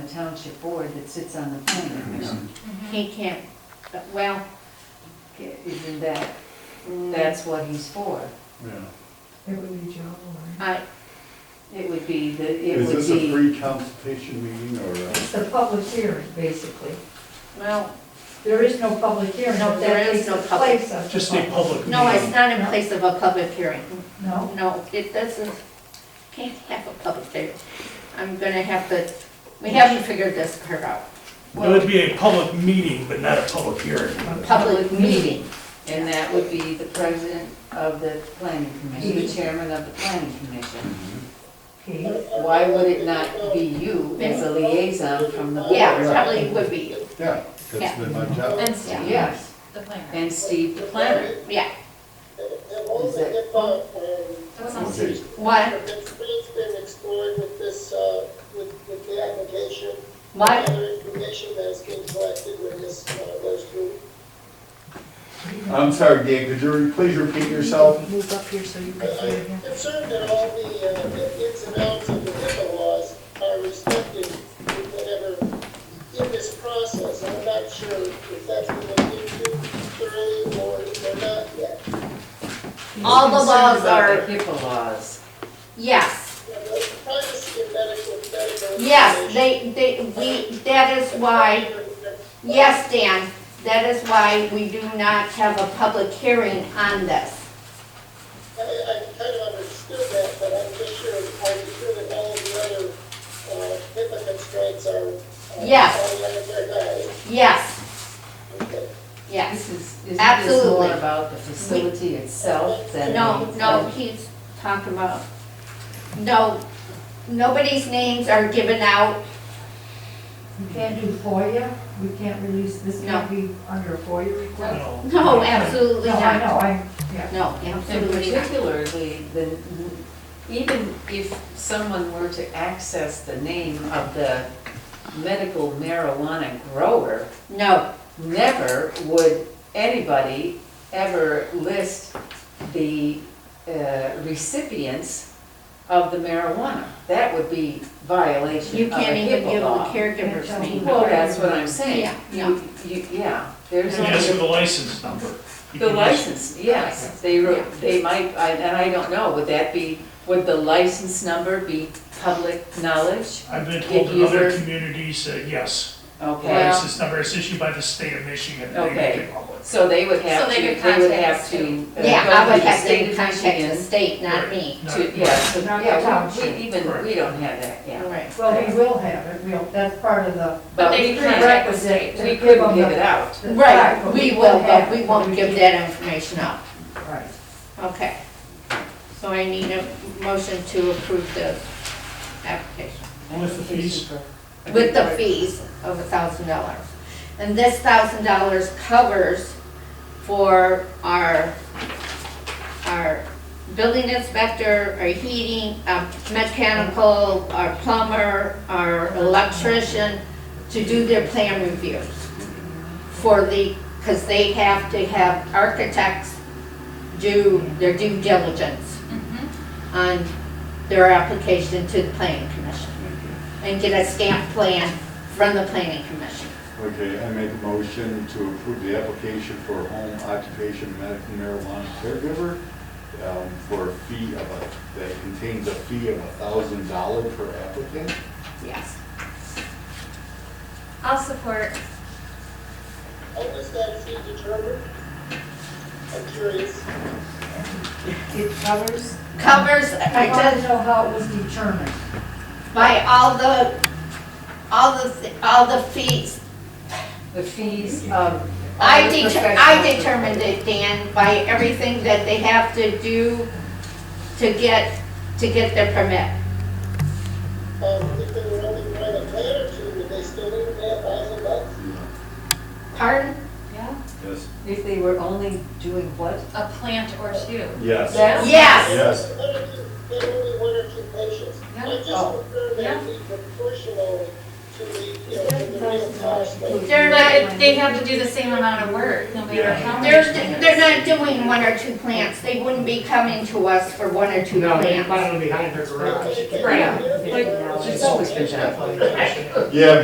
township board that sits on the Mhm. planning commission. He can't, but, well, isn't that, that's what he's for. Yeah. It would be Joe Warren. I, it would be, the it Is would this a be, free consultation meeting or uh, a? It's the public hearing, basically. well, There is no public hearing. No, there That is no takes the public- place of the Just a public meeting. no, it's not in place of a public hearing. No? No, it doesn't, can't have a public hearing. I'm gonna have to, we haven't figured this part out. It would be a public meeting, but not a public hearing. a public meeting. And that would be the president of the planning commission, the chairman of the planning commission. Okay. Why would it not be you as a liaison from the board? Yeah, probably would be, Yeah, Yeah. that's been my job. and Steve, Yes, the planner. and Steve the planner. Yeah, Is it- that was on Okay. Steve. What, It's it's been explored with this, uh, with with the application, what, other information that has been collected when this uh, goes through. I'm sorry, Dan, could you re- please repeat yourself? Move up here so you can see I- I'm again. concerned that all the uh, the ins and outs of the HIPAA laws are respected in whatever, in this process. I'm not sure if that's been looked into thoroughly or or not yet. All the laws about are, the HIPAA laws? yes, Now, the Privacy and medical, medical. yes, they, they, we, that is why, yes, Dan, that is why we do not have a public hearing on this. I, I kind of understood that, but I'm just sure, I'm sure that all of the other, uh, HIPAA constraints are. uh, Yes. All under their guise. Yes, Okay. yes. This is, isn't this Absolutely. more about the facility itself than? No, the- no, he's talking about, no, nobody's names are given out, We can't do FOIA, we can't release, this can't be under a FOIA You request. know. no, absolutely No, I not. know, I, yeah. No, And absolutely not. particularly, the, even if someone were to access the name of the medical marijuana grower, No, never would anybody ever list the uh, recipients of the marijuana. That would be you violation of a can't even HIPAA give the law. caregiver's Can't name. tell Well, that's what I'm saying. Yeah, You, you, yeah, there's You ask for only the license number. You the can ask- license, yes. They wrote, they might, I- and I don't know, would that be, would the license number be public knowledge? I've been told Get in other user- communities that, yes, the Okay, license number is issued by the state of Michigan. and they Okay. make it public. so they would have So to, they they could would contact have us to. uh, Yeah, go I to would the have state to of contact the Michigan. state, not me. Not- To, yeah, so, Not the yeah, we- township. we even, we don't have that, yeah. Right. Well, we will have it, we'll, that's part of the. But we they couldn't can't- requisite- they we give couldn't them give the- it out. the fact, Right, we will, but have we it, won't we give can't- that information out. Right. Okay. So I need a motion to approve the application With the fees. with the fees of a thousand dollars. And this thousand dollars covers for our, our building inspector, our heating, our mechanical, our plumber, our electrician, to do their plan reviews for the, because they have to have architects do their due diligence on their application to the planning commission and get a stamp plan from the planning commission. Okay, I make a motion to approve the application for home occupation medical marijuana caregiver um, for a fee of a, that contains a fee of a thousand dollar per applicant. Yes. I'll support. How was that fee determined? I'm curious. It covers, Covers, I I don't just, know how it was determined. by all the, all the, all the fees. The fees of. I of the deter, I professional- determined it, Dan, by everything that they have to do to get, to get their permit. Um, if they were only trying to plan or two, would they still need that thousand bucks? Mm-hmm. Pardon? Yeah. Yes. If they were only doing what? A plant or two. Yes. That- Yes, Yes. One or two, there were only one or two patients. Yeah. I just Oh. prefer that be proportional to the, you know, to the real cost. but- They're not, they have to do the same amount of work, no matter how much. they're, they're not doing one or two plants, they wouldn't be coming to us for one or two plants. Right. It's always been that way. Yeah,